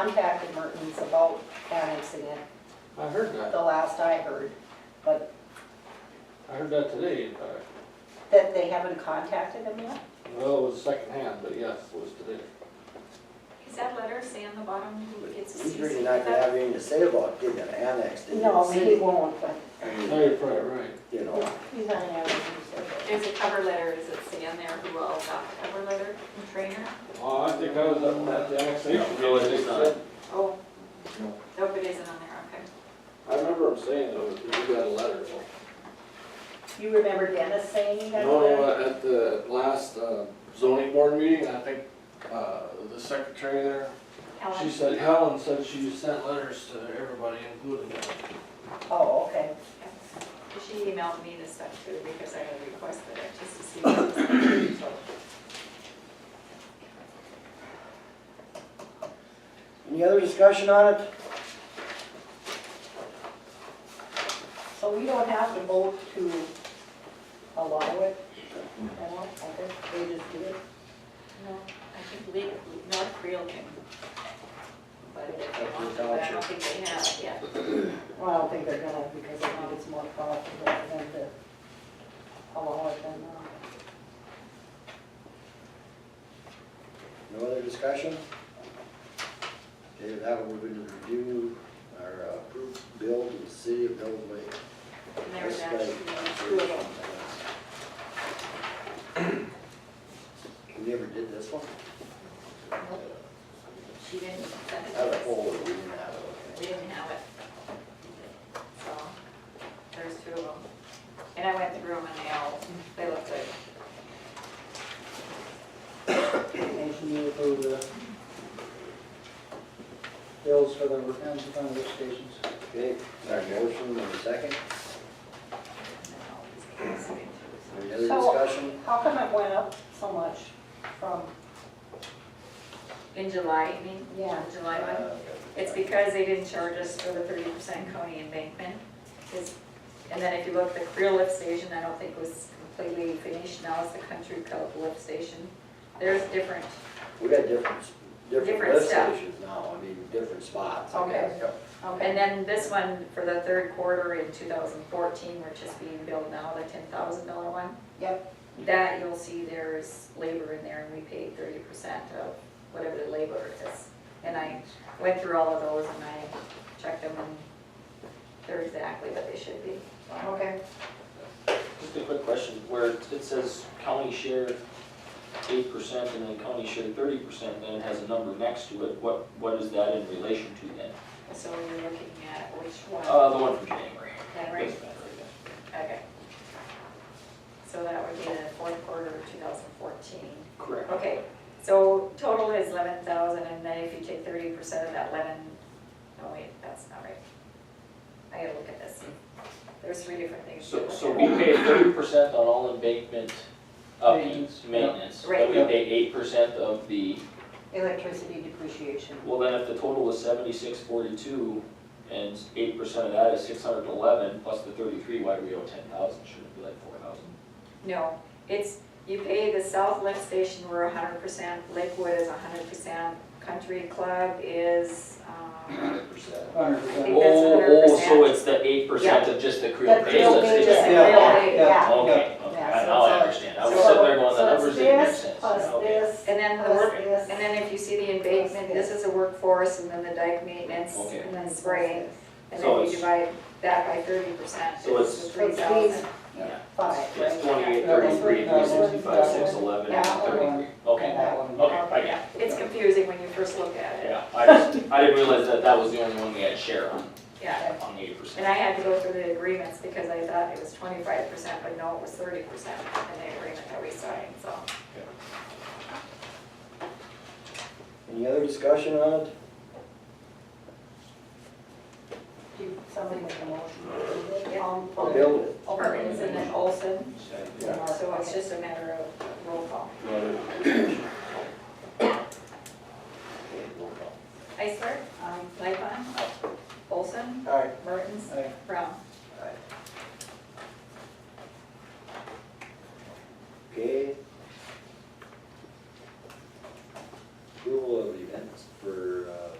contacted Mertens about annexing it, I heard that. the last I heard, but I heard that today, in fact. that they haven't contacted him yet? Well, it was secondhand, but yes, it was today. Is that letter say on the bottom who gets a He's CC? really not gonna have anything to say about getting it annexed into the No, he city. won't, but I Now mean, you're probably right. You know, he's not having it. There's a cover letter, is it say on there who all got the cover letter from trainer? Oh, I think I was up at the annexation. No, it is meeting. not. Oh. No. Nope, it isn't on there, I remember him saying though, that we got a letter. You remember Dennis saying he got a No, letter? no, uh, at the last uh, zoning board meeting, I think, uh, the secretary there, okay. she Ellen, said, Helen said she sent letters to everybody, including him. Oh, okay. she emailed me this stuff too, because I had requested it, just to see. what it was. any other discussion on it? So we don't have to vote to allow it? Mm-hmm. I don't, okay, they just do it? No, I think Lee, North Creel can. But if they want to, but I don't think they have it yet. Well, I don't think they're gonna, because I think it's more profitable for them to allow it than not. No other discussion? Okay, with that we're gonna review our uh, approved bill to the city of Mills Lake. And there was That's actually right. two of them. We never did this one? She didn't send it Out to of us. whole, we didn't have We it, okay. didn't have it. So, there's two of them. And I went through them and they all, they looked good. Motion to approve the bills for the Ramsey County lift stations. Okay, our motion and a second, any other So- discussion? How come it went up so much from, In July, I mean? Yeah. In Uh, July one. It's because they didn't charge us for the thirty percent county embankment. 'Cause- And then if you look, the Creel lift station, I don't think was completely finished. Now it's the Country Club lift station. There's different, We got different, different Different lift stuff. stations now, I mean, different spots, I Okay. guess. okay. and then this one for the third quarter in two thousand fourteen, which is being built now, the ten thousand dollar one. Yep, That you'll see there's labor in there and we paid thirty percent of whatever the labor is. And I went through all of those and I checked them and they're exactly what they should be. okay. Just a quick question, where it says county share eight percent and then county share thirty percent, then it has a number next to it, what, what is that in relation to then? So you're looking at which one, Uh, the one from January. that right? Doesn't matter, I guess. Okay. So that would be the fourth quarter of two thousand fourteen. Correct. Okay, so total is eleven thousand, and then if you take thirty percent of that eleven, no wait, that's not right. I gotta look at this. There's three different things. to So, look so at. we pay thirty percent on all embankment Maintenance, upkeep, yeah. maintenance, Right. but we pay eight percent of the, Electricity depreciation. well, then if the total was seventy-six forty-two and eight percent of that is six hundred and eleven plus the thirty-three, why do we owe ten thousand, shouldn't it be like four thousand? No, it's, you pay the South Lift Station, we're hundred percent, Lakewood is hundred percent, Country Club is, um, Hundred percent. Hundred I percent. think that's Oh, another oh, so percent. it's the eight percent of just the Creole That's Basin? real big, it's just just- a Yeah, real big, yeah. yeah. Okay, okay, Yeah, now I so- understand, I was so- sitting there going, the So numbers it's didn't make this sense. plus Okay. this. and then the Plus work, this. and then if you see the embankment, this is the workforce, and then the dike maintenance, Okay. and then spraying. And So then you it's- divide that by thirty percent, So it's the it's- three thousand. Yeah. Five, It's right? twenty-eight, thirty-three, three sixty-five, six eleven, and Yeah. thirty-three, And okay, that one. okay, I got it. It's confusing when you first look at it, Yeah, I just, I didn't realize that that was the only one we had share on, yeah. on the eight percent. And I had to go through the agreements because I thought it was twenty-five percent, but no, it was thirty percent in the agreement that we signed, so. Any other discussion on it? Do somebody make a motion? Yeah. Um, I'll build it. Perkins and then Olson, Yeah. so it's just a matter of roll call. Okay, roll call. Iceberg, Aye. Lightfon, Um, Olson, All right. Mertens, Aye. Brown. uh,